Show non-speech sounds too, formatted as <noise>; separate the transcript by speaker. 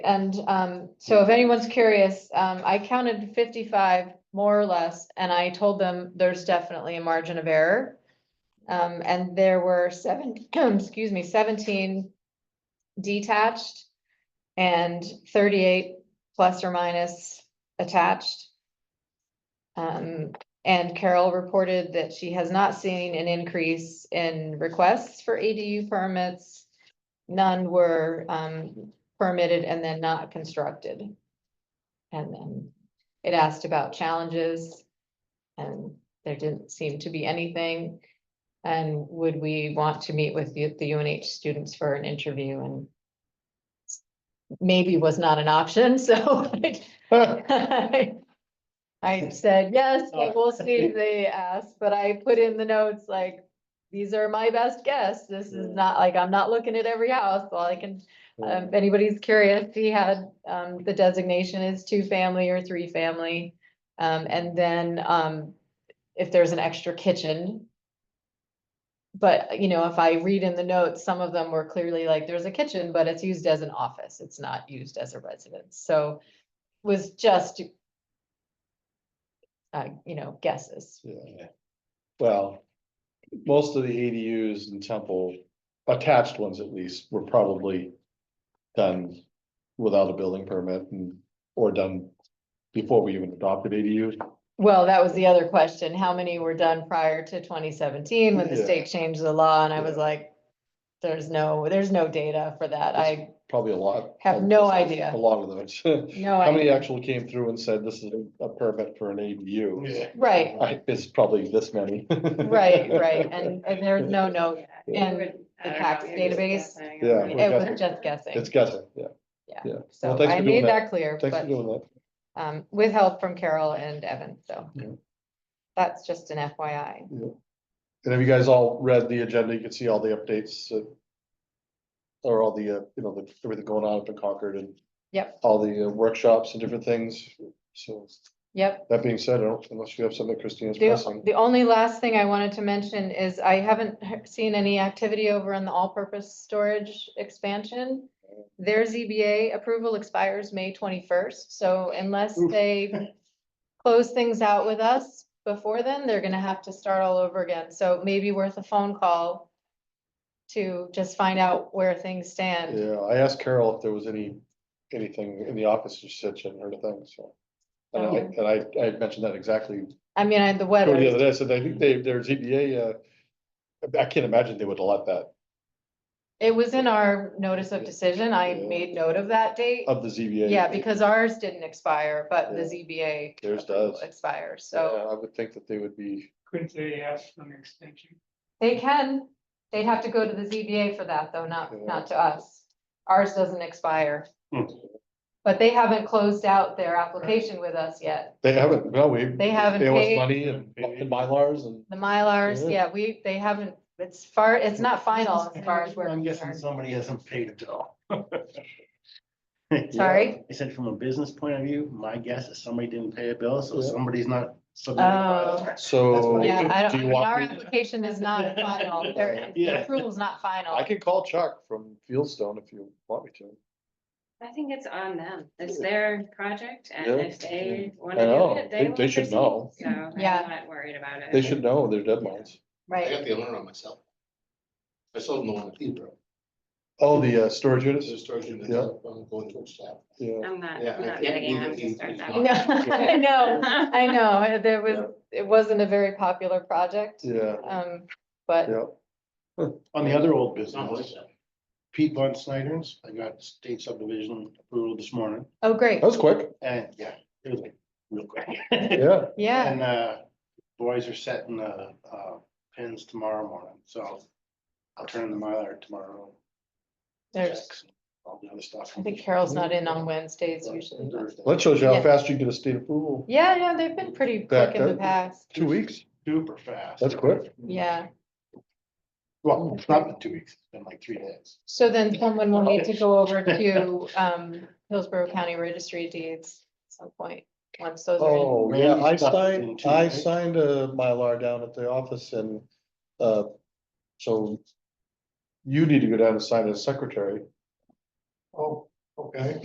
Speaker 1: And um, so if anyone's curious, um, I counted fifty-five more or less, and I told them there's definitely a margin of error. Um, and there were seven, <clears throat> excuse me, seventeen detached and thirty-eight plus or minus attached. Um, and Carol reported that she has not seen an increase in requests for ADU permits. None were um, permitted and then not constructed. And then it asked about challenges. And there didn't seem to be anything. And would we want to meet with the, the UNH students for an interview and maybe was not an option, <laughs> so
Speaker 2: <laughs>
Speaker 1: Um, I I said, yes, but we'll see if they ask, but I put in the notes like, these are my best guess. This is not like, I'm not looking at every house. All I can um, if anybody's curious, he had, um, the designation is two-family or three-family. Um, and then, um, if there's an extra kitchen. But, you know, if I read in the notes, some of them were clearly like, there's a kitchen, but it's used as an office. It's not used as a residence, so was just uh, you know, guesses.
Speaker 2: Yeah. Well, most of the ADUs in Temple, attached ones at least, were probably done without a building permit and, or done before we even adopted ADUs.
Speaker 1: Well, that was the other question. How many were done prior to twenty seventeen when the
Speaker 2: Yeah.
Speaker 1: state changed the law? And I was
Speaker 2: Yeah.
Speaker 1: like, there's no, there's no data for that. I,
Speaker 2: Probably a lot.
Speaker 1: Have no idea.
Speaker 2: A lot of <laughs> those.
Speaker 1: no,
Speaker 2: How many
Speaker 1: I,
Speaker 2: actually came through and said this is a permit for an ADU?
Speaker 1: right,
Speaker 2: I, it's probably this many. <laughs>
Speaker 1: right, right. And, and there's no note.
Speaker 2: Yeah.
Speaker 1: And the tax database.
Speaker 2: Yeah.
Speaker 1: It
Speaker 2: we're
Speaker 1: was
Speaker 2: guessing.
Speaker 1: just guessing.
Speaker 2: It's guessing, yeah.
Speaker 1: Yeah.
Speaker 2: Yeah.
Speaker 1: So
Speaker 2: thanks
Speaker 1: I
Speaker 2: for doing
Speaker 1: made that clear,
Speaker 2: Thanks for
Speaker 1: but,
Speaker 2: doing that.
Speaker 1: um, with help from Carol and Evan, so.
Speaker 2: Yeah.
Speaker 1: That's just an FYI.
Speaker 2: And have you guys all read the agenda? You can see all the updates. uh, Or all the, uh, you know, the- everything going on up in Concord and.
Speaker 1: Yep.
Speaker 2: All the uh, workshops and different things. So
Speaker 1: Yep.
Speaker 2: that being said, I don't- unless you have something Christina's
Speaker 1: The,
Speaker 2: pressing.
Speaker 1: the only last thing I wanted to mention is I haven't he- seen any activity over in the all-purpose storage expansion. Their ZBA approval expires May twenty-first, so unless
Speaker 2: Oof.
Speaker 1: they close things out with us before then, they're gonna have to start all over again. So it may be worth a phone call to just find out where things stand.
Speaker 2: Yeah, I asked Carol if there was any, anything in the office. She said she hadn't heard a thing, so. And I,
Speaker 1: Oh.
Speaker 2: and I- I had mentioned that exactly.
Speaker 1: I mean, I had the
Speaker 2: The
Speaker 1: weather.
Speaker 2: other day, I said, I think they, their ZBA, uh, I can't imagine they would have let that
Speaker 1: It was in our notice of decision. I
Speaker 2: Yeah.
Speaker 1: made note of that date.
Speaker 2: of the ZBA.
Speaker 1: Yeah, because ours didn't expire, but the
Speaker 2: Yeah.
Speaker 1: ZBA.
Speaker 2: Theirs
Speaker 1: approval
Speaker 2: does.
Speaker 1: Expires, so
Speaker 2: Yeah, I would think that they would be.
Speaker 3: Couldn't they ask for an extension?
Speaker 1: they can, they'd have to go to the ZBA for that, though, not,
Speaker 2: Yeah.
Speaker 1: not to us. Ours doesn't expire.
Speaker 3: Hmm.
Speaker 1: But they haven't closed out their application with us yet.
Speaker 2: They haven't, no, we.
Speaker 1: They haven't
Speaker 2: They owe us
Speaker 1: paid.
Speaker 2: money and, and Mylars and.
Speaker 1: The Mylars,
Speaker 2: Yeah.
Speaker 1: yeah, we, they haven't, it's far, it's not final as far as we're
Speaker 4: I'm guessing
Speaker 1: concerned.
Speaker 4: somebody hasn't paid a bill.
Speaker 1: Sorry?
Speaker 4: I said, from a business point of view, my guess is somebody didn't pay a bill, so
Speaker 2: Yeah.
Speaker 4: somebody's not. submitting
Speaker 1: Oh,
Speaker 4: files.
Speaker 2: So.
Speaker 4: funny.
Speaker 1: yeah, I don't,
Speaker 2: do
Speaker 1: I
Speaker 2: you
Speaker 1: mean,
Speaker 2: want
Speaker 1: our
Speaker 2: me to-
Speaker 1: application is not
Speaker 2: <laughs>
Speaker 1: final. Their the
Speaker 4: Yeah.
Speaker 1: approval's not final.
Speaker 2: I can call Chuck from Fieldstone if you want me to.
Speaker 5: I think it's on them. It's their project
Speaker 2: Yeah.
Speaker 5: and if they want
Speaker 2: I
Speaker 5: to
Speaker 2: know.
Speaker 5: do it,
Speaker 2: They-
Speaker 5: they
Speaker 2: they
Speaker 5: will.
Speaker 2: should
Speaker 5: proceed.
Speaker 2: know.
Speaker 5: So I'm
Speaker 1: Yeah.
Speaker 5: not worried about it.
Speaker 2: They should know their deadlines.
Speaker 6: I
Speaker 1: Right,
Speaker 6: got the alarm on myself. I sold them the one at Hebrew.
Speaker 2: Oh, the uh, storage
Speaker 6: This
Speaker 2: units,
Speaker 6: is a storage unit.
Speaker 2: Yeah.
Speaker 6: I'm going to staff.
Speaker 2: yeah,
Speaker 5: I'm not,
Speaker 6: Yeah, I
Speaker 5: I'm not
Speaker 6: can't
Speaker 5: getting
Speaker 6: believe
Speaker 5: out
Speaker 6: that
Speaker 5: to
Speaker 6: he's-
Speaker 5: start that.
Speaker 6: he's
Speaker 1: <laughs>
Speaker 6: not.
Speaker 1: no, I know.
Speaker 5: <laughs>
Speaker 1: I
Speaker 2: <laughs>
Speaker 1: know, uh, there
Speaker 2: Yeah.
Speaker 1: was, it wasn't a very popular project,
Speaker 2: yeah,
Speaker 1: um, but,
Speaker 2: yeah.
Speaker 4: On the other old
Speaker 6: It's not
Speaker 4: business,
Speaker 6: myself.
Speaker 4: Pete Von Snyder's, I got state subdivision approval this morning,
Speaker 1: oh, great,
Speaker 2: That was quick,
Speaker 4: and yeah, it was like real quick.
Speaker 2: yeah.
Speaker 1: <laughs> yeah,
Speaker 4: And, uh, boys are setting, uh, uh, pins tomorrow morning, so I'll turn in the Mylar tomorrow.
Speaker 1: there's,
Speaker 4: Checks and All the other stuff.
Speaker 1: I think Carol's not in on Wednesdays usually. but-
Speaker 2: That shows you
Speaker 1: Yeah.
Speaker 2: how fast you get a state approval.
Speaker 1: Yeah, yeah, they've been pretty
Speaker 2: Back
Speaker 1: quick in the
Speaker 2: up. Mm.
Speaker 1: past,
Speaker 2: Two weeks,
Speaker 4: Super fast.
Speaker 2: that's quick.
Speaker 1: yeah,
Speaker 4: Well, it's not been two weeks, it's been like three days.
Speaker 1: so then someone will need to go
Speaker 2: <laughs>
Speaker 1: over to, um, Hillsborough County Registry of Deeds at some point, once those are in.
Speaker 2: Oh, yeah, I signed, I signed a Mylar down at the office and, uh, so you need to go down and sign as secretary.
Speaker 4: Oh, okay.